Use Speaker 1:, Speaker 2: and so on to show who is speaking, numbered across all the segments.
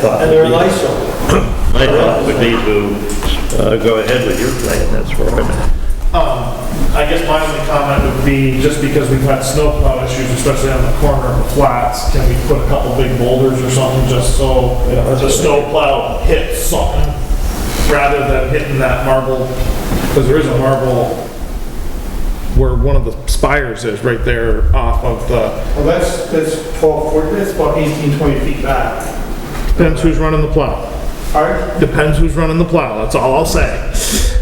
Speaker 1: thought
Speaker 2: And
Speaker 1: would
Speaker 2: they're
Speaker 1: be-
Speaker 2: Lysol.
Speaker 1: My thought would be to uh, go ahead with your plan, that's where I'm at.
Speaker 3: Um, I guess my only comment would be, just because we've had snowplow issues, especially on the corner of the flats, can we put a couple big boulders or something just so the snowplow hits something rather than hitting that marble? Because there is a marble where one of the spires is right there off of the,
Speaker 2: Well, that's, that's 12, foot- that's about 18, 20 feet back.
Speaker 3: depends who's running the plow.
Speaker 2: All right,
Speaker 3: Depends who's running the plow, that's all I'll say.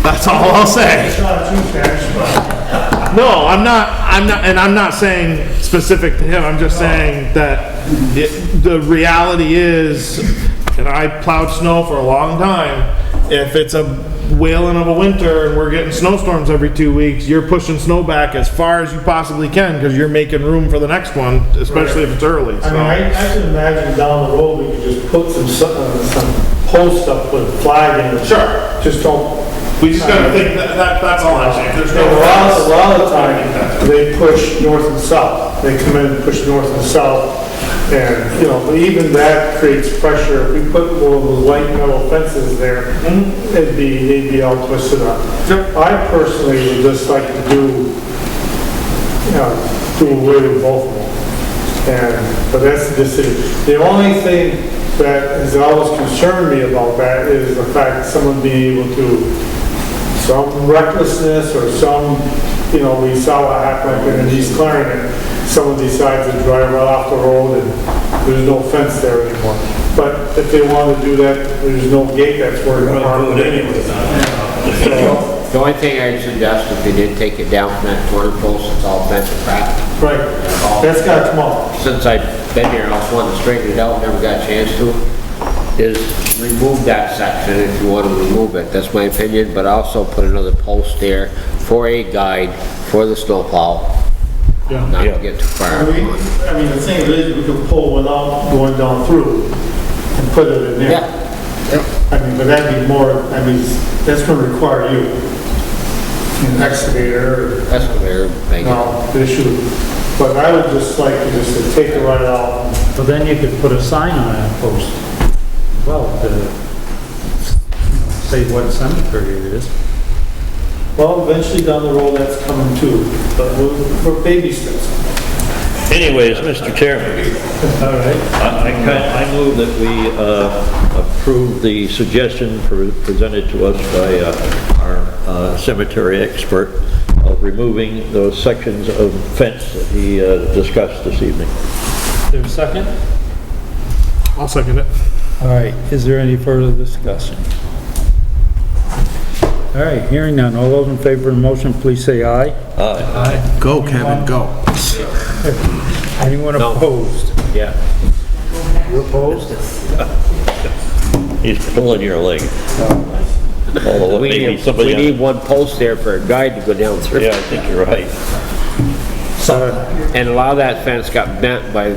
Speaker 3: That's all I'll say.
Speaker 2: it's not too fast, but
Speaker 3: No, I'm not, I'm not, and I'm not saying specific to him, I'm just saying that it- the reality is, and I plowed snow for a long time, if it's a wailing of a winter and we're getting snowstorms every two weeks, you're pushing snow back as far as you possibly can, because you're making room for the next one, especially if it's
Speaker 2: I
Speaker 3: early,
Speaker 2: mean,
Speaker 3: so.
Speaker 2: I, I can imagine down the road, we could just put some, su- uh, some post up with a flag in it.
Speaker 3: Sure,
Speaker 2: Just don't,
Speaker 3: we just gotta think, that, that- that's all I'm saying, there's
Speaker 2: a lot, a
Speaker 3: no.
Speaker 2: lot of the time, they push north and south. They come in and push north and south. And, you know, but even that creates pressure. If we put one of those light metal fences there,
Speaker 3: Mm-hmm.
Speaker 2: it'd be, they'd be all twisted up. I personally would just like to do, you know, do away with both of them. And, but that's the decision. The only thing that has always concerned me about that is the fact that someone being able to some recklessness or some, you know, we saw what happened in East Clarendon. Someone decides to drive right off the road and there's no fence there anymore. But if they want to do that, there's no gate that's where it's harmed anyway. So,
Speaker 4: The only thing I'd suggest if you did take it down from that corner post, it's all bent to crap.
Speaker 2: Right, that's got to come off.
Speaker 4: Since I've been here, I was wanting to straighten it out, never got a chance to, is remove that section if you want to remove it. That's my opinion, but also put another post there for a guide for the snowplow. Not to get too
Speaker 2: I
Speaker 4: far.
Speaker 2: mean, I mean, the thing is, we could pull one out going down through and put it in there.
Speaker 4: Yeah.
Speaker 2: I mean, but that'd be more, I mean, that's going to require you, an excavator, or
Speaker 4: That's what they're making.
Speaker 2: No, issue, but I would just like to just to take it right out.
Speaker 5: But then you could put a sign on that post, well, to you know, say what cemetery it is.
Speaker 2: Well, eventually down the road, that's coming too, but we're- we're baby steps.
Speaker 1: Anyways, Mr. Chairman,
Speaker 2: All right.
Speaker 1: I, I kind- I move that we uh, approve the suggestion pre- presented to us by uh, our uh, cemetery expert of removing those sections of fence that he uh, discussed this evening.
Speaker 5: There's a second?
Speaker 3: I'll second it.
Speaker 5: All right, is there any further discussion? All right, hearing none, all those in favor of the motion, please say aye.
Speaker 6: Go, Kevin, go.
Speaker 5: Anyone opposed?
Speaker 1: Yeah.
Speaker 5: You opposed?
Speaker 1: He's pulling your leg. Although
Speaker 4: We
Speaker 1: maybe
Speaker 4: need, we
Speaker 1: somebody,
Speaker 4: need
Speaker 1: else-
Speaker 4: one post there for a guide to go down through.
Speaker 1: yeah, I think you're right.
Speaker 4: And a lot of that fence got bent by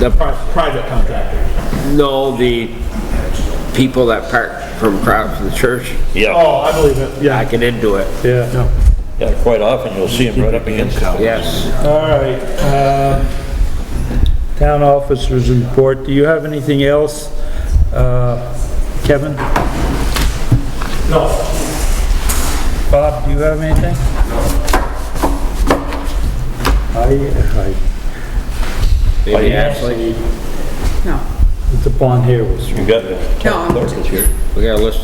Speaker 4: the
Speaker 3: Private contractor.
Speaker 4: No, the people that park from crowd from the church,
Speaker 1: Yeah,
Speaker 3: Oh, I believe it, yeah.
Speaker 4: backing into it,
Speaker 5: Yeah.
Speaker 1: yeah, quite often you'll see him right up against it.
Speaker 4: yes.
Speaker 5: All right, um, town officers report, do you have anything else, uh, Kevin?
Speaker 2: No,
Speaker 5: Bob, do you have anything? I,
Speaker 4: Maybe actually,
Speaker 5: I, it's upon here was,
Speaker 1: You got it.
Speaker 7: No,
Speaker 1: Clerk is here.
Speaker 4: we got a list,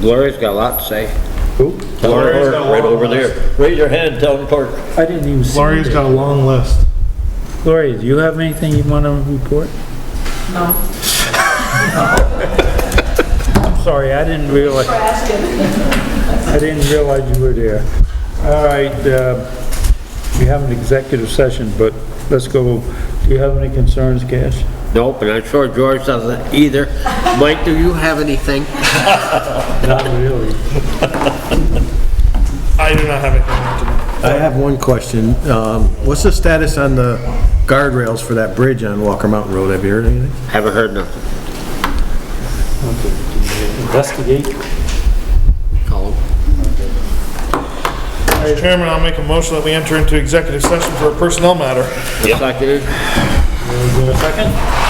Speaker 4: Gloria's got a lot to say.
Speaker 5: who?
Speaker 1: Town clerk, right over there. Raise your hand, town clerk.
Speaker 5: I didn't even see
Speaker 3: Gloria's
Speaker 5: it.
Speaker 3: got a long list.
Speaker 5: Gloria, do you have anything you want to report?
Speaker 7: no.
Speaker 5: I'm sorry, I didn't realize, I didn't realize you were there. All right, uh, we have an executive session, but let's go, do you have any concerns, Cash?
Speaker 4: Nope, and I'm sure George doesn't either. Mike, do you have anything?
Speaker 5: Not really.
Speaker 3: I do not have anything to
Speaker 6: I have one question. Um, What's the status on the guardrails for that bridge on Walker Mountain Road? Have you heard anything?
Speaker 4: Haven't heard nothing.
Speaker 5: Investigate.
Speaker 4: Call him.
Speaker 3: Mr. Chairman, I'll make a motion that we enter into executive session for a personnel matter.
Speaker 4: Seconded.
Speaker 1: Is there a second?